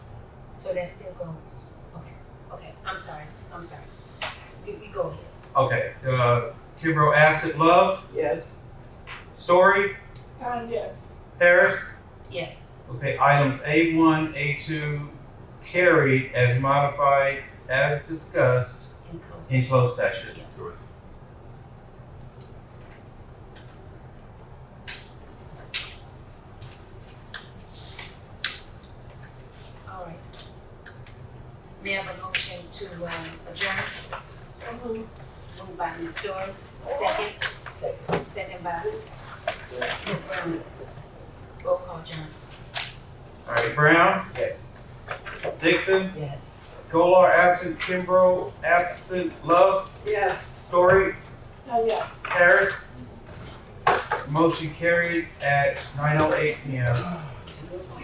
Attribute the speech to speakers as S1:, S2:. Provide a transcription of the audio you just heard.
S1: So that still goes, okay, okay, I'm sorry, I'm sorry. You, you go ahead.
S2: Okay, uh, Kimbrough absent Love,
S3: Yes.
S2: Story,
S3: Khan, yes.
S2: Harris.
S1: Yes,
S2: Okay, items A1, A2 carried as modified as discussed
S1: in closed.
S2: in closed session.
S4: Correct.
S1: All right. May I have a motion to um, adjourn? Moved by Ms. Dorr, second. Second. Second by who? Ms. Brown. Roll call, John.
S2: All right, Brown,
S3: Yes.
S2: Dixon,
S5: Yes.
S2: Golar absent, Kimbrough absent, Love,
S3: Yes.
S2: Story,
S3: Khan, yes.
S2: Harris. oh Motion carried at 9:08 p.m.